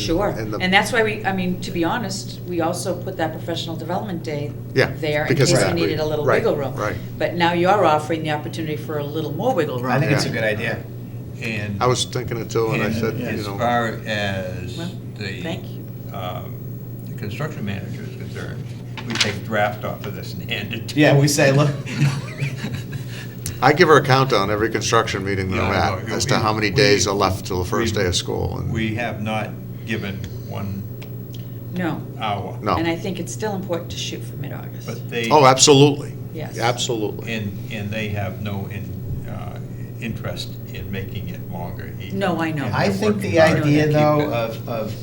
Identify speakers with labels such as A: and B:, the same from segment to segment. A: Sure,
B: And the-
A: and that's why we, I mean, to be honest, we also put that professional development day
B: Yeah,
A: there in
B: because
A: case we
B: that-
A: needed a little
B: right,
A: wiggle room.
B: right.
A: But now you're offering the opportunity for a little more wiggle room.
C: I think it's a
B: Yeah.
C: good idea. And.
B: I was thinking it too, and I said,
C: and
B: you
C: As
B: know,
C: far as
A: Well,
C: the.
A: thank you.
C: um, The construction manager is concerned, we take draft off of this and hand it to.
D: Yeah,
C: him.
D: we say, look,
B: I give her a countdown every construction meeting that I'm
C: Yeah,
B: at
C: no,
B: as to
C: we-
B: how many
C: we-
B: days are left till the first
C: we-
B: day of school. and-
C: We have not given one
A: No,
C: hour.
B: No.
A: and I think it's still important to shoot for mid-August.
C: But they.
B: Oh, absolutely.
A: Yes.
B: Absolutely.
C: And, and they have no in, uh, interest in making it longer either.
A: No, I know.
C: And
A: I
D: I
C: they're
D: think
C: working
D: the
C: hard to
D: idea
C: keep
D: though
C: it.
D: of, of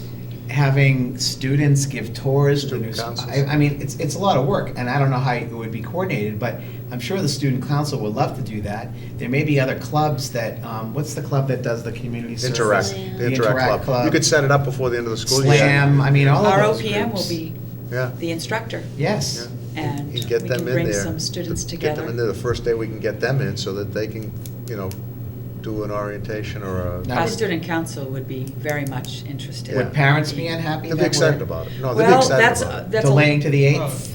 D: having students give tours, of the new,
B: Student councils.
D: I, I mean, it's, it's a lot of work and I don't know how it would be coordinated, but I'm sure the student council would love to do that. There may be other clubs that, um, what's the club that does the community service?
B: Interact,
D: The
B: the Interact Club. You could set it up before the end of the school year.
D: Slam, I mean, all of
A: Our
D: those
A: OPM will
D: groups.
A: be
B: Yeah.
A: the instructor,
D: Yes,
A: and we
B: You get
A: can
B: them in
A: bring
B: there.
A: some students
B: to Get them in
A: together.
B: there the first day we can get them in so that they can, you know, do an orientation or a,
D: No.
A: Our
D: would-
A: student council would be very much interested.
B: Yeah.
D: would parents be unhappy
B: they'd
D: that
B: be excited
D: we're
B: about it. No, they'd be
A: Well, that's,
B: excited about it.
A: that's. a- oh.
D: delaying to the
C: Well,
D: eighth?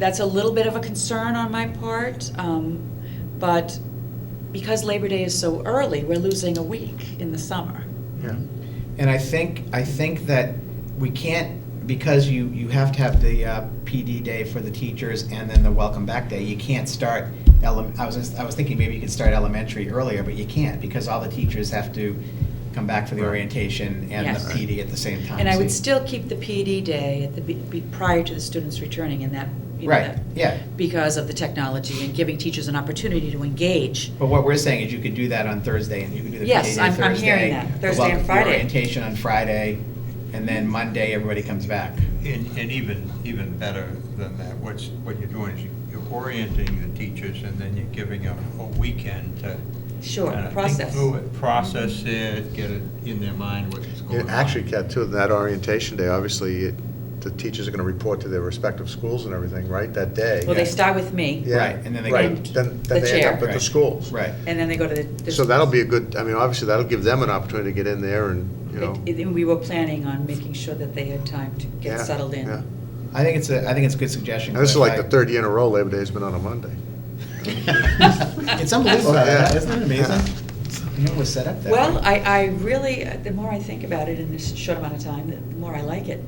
A: That's a little bit of a concern on my part, um, but because Labor Day is so early, we're losing a week in the summer.
B: Yeah.
D: And I think, I think that we can't, because you, you have to have the uh, PD day for the teachers and then the welcome back day, you can't start, ele- I was, just- I was thinking maybe you could start elementary earlier, but you can't, because all the teachers have to come back for the
B: Right.
D: orientation and
A: Yes.
D: the PD at the same time.
A: And I
D: so
A: would
D: you-
A: still keep the PD day at the, be- be- prior to the students returning in that, you know,
D: Right,
A: that-
D: yeah,
A: because of the technology and giving teachers an opportunity to engage.
D: but what we're saying is you could do that on Thursday, and you could do the PD
A: Yes,
D: Thursday.
A: I'm- I'm hearing that,
D: the
A: Thursday and
D: welcome- the
A: Friday.
D: orientation on Friday, and then Monday, everybody comes back.
C: And, and even, even better than that, what's, what you're doing is you- you're orienting the teachers and then you're giving them a weekend to.
A: Sure,
C: kinda think
A: process.
C: through it, Process it, get it in their mind what's
B: Yeah,
C: going on.
B: Actually, Kat, too, that orientation day, obviously, it- the teachers are going to report to their respective schools and everything, right, that day?
A: Well, they
D: Yeah.
A: start with me,
B: Yeah,
D: Right, and then they
B: right.
A: go-
B: Then,
A: The
B: then they end up
A: chair.
B: at the
D: Right.
B: schools.
D: Right.
A: and then they go to the. the-
B: So that'll be a good, I mean, obviously, that'll give them an opportunity to get in there and, you know.
A: It- it- We were planning on making sure that they had time to get
B: yeah,
A: settled in.
B: yeah.
D: I think it's a, I think it's a good suggestion.
B: And this is
D: Cliff.
B: like the
D: I-
B: third year in a row Labor Day's been on a Monday.
D: It's unbelievable,
B: Oh,
D: how that- isn't it amazing? It was set up that way.
A: Well, I, I really, the more I think about it in this short amount of time, the more I like it.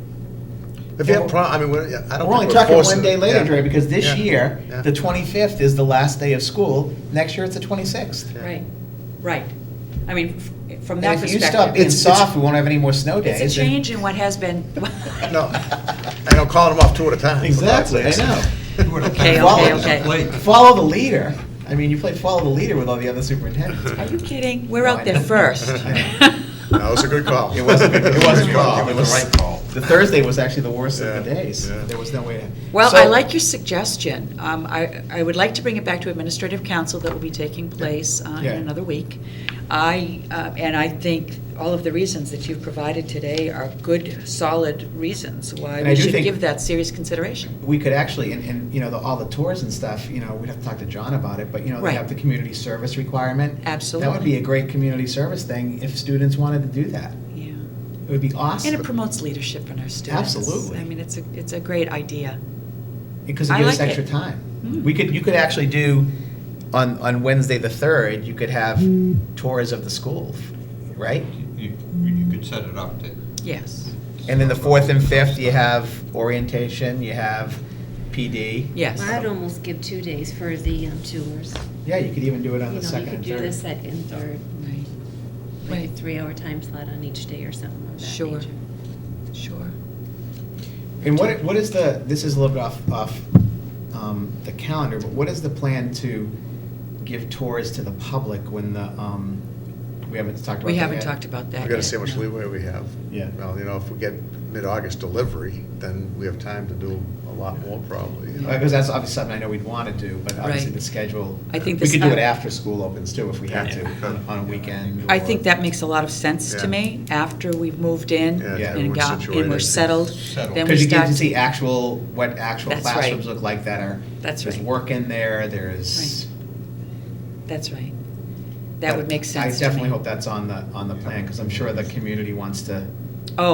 B: If you
D: Yeah,
B: have pro, I mean, we're- yeah, I don't think
D: We're
B: we're
D: only talking one
B: forcing
D: day
B: it.
D: later,
B: Yeah.
D: Dre, because this
B: Yeah.
D: year,
B: Yeah.
D: the 25th is the last day of school. Next year, it's the 26th.
B: Yeah.
A: Right, right. I mean, f- from
D: And
A: that
D: if you stop
A: perspective,
D: being
B: It's- it's-
D: soft, we won't have any more snow days.
A: it's a
D: and-
A: change in what has been.
B: No, and I'm calling them off two at a time. for God's
D: Exactly, I
B: sakes.
D: know.
A: Okay,
D: okay,
A: okay.
D: Follow the leader. I mean, you play follow the leader with all the other superintendents.
A: Are you kidding? We're
D: No,
A: out
D: I
A: there
D: know.
A: first.
B: That was a good call.
D: It was a good- it was a
B: Good
D: good
B: call.
D: call.
C: It was the right call.
D: The Thursday was actually the worst of the
B: Yeah,
D: days.
B: yeah.
D: There was no way to.
A: Well,
D: So-
A: I like your suggestion. Um, I, I would like to bring it back to administrative council that will be taking place uh, in
D: Yeah.
A: another week. I, uh, and I think all of the reasons that you've provided today are good, solid reasons why
D: And I
A: we
D: do
A: should
D: think-
A: give that serious consideration.
D: we could actually, and, and, you know, the, all the tours and stuff, you know, we'd have to talk to John about it, but, you know, they
A: Right.
D: have the community service requirement. That would
A: Absolutely.
D: be a great community service thing if students wanted to do that.
A: Yeah.
D: It would be
A: And it
D: awesome.
A: promotes leadership in our students.
D: Absolutely.
A: I mean, it's a, it's a great idea.
D: Because it
A: I
D: gives us
A: like
D: extra
A: it.
D: time.
A: Mm.
D: We could, you could actually do, on, on Wednesday the third, you could have tours of the school, right?
C: You, you could set it up to.
A: Yes,
D: And then the fourth and fifth, you have orientation, you have PD.
A: yes.
E: I'd almost give two days for the um, tours.
D: Yeah, you could even do it on the
E: You know, you
D: second
E: could
D: and
E: do the
D: third.
E: second, and third,
A: Right,
E: like a
A: Right.
E: three-hour time slot on each day or something of that
A: Sure.
E: nature.
A: sure.
D: And what, what is the, this is a little bit off, off um, the calendar, but what is the plan to give tours to the public when the, um, we haven't talked about that
A: We haven't
D: yet?
A: talked about that
B: We've
A: yet.
B: got to see how much
A: no.
B: leeway we have.
D: Yeah.
B: Well, you know, if we get mid-August delivery, then we have time to do a lot more probably. you know.
D: Because Uh, that's obviously something I know we'd want to do, but obviously
A: Right.
D: the schedule.
A: I think
D: We
A: this-
D: could do it
A: I-
D: after school opens too, if we had to,
C: Yeah.
D: on- on a weekend.
A: I
D: or-
A: think that makes a lot of sense
B: Yeah.
A: to me, after we've moved in
B: Yeah,
D: Yeah.
A: and
B: everyone's
A: got, and we're
B: situated.
A: settled,
C: Settled.
A: then we
D: Because you get
A: start.
D: to see actual, what actual
A: That's right.
D: classrooms look like that are.
A: That's
D: There's
A: right.
D: work in there, there's.
A: That's right. That would make sense to me.
D: I definitely hope that's on the, on the plan, because I'm sure the community wants to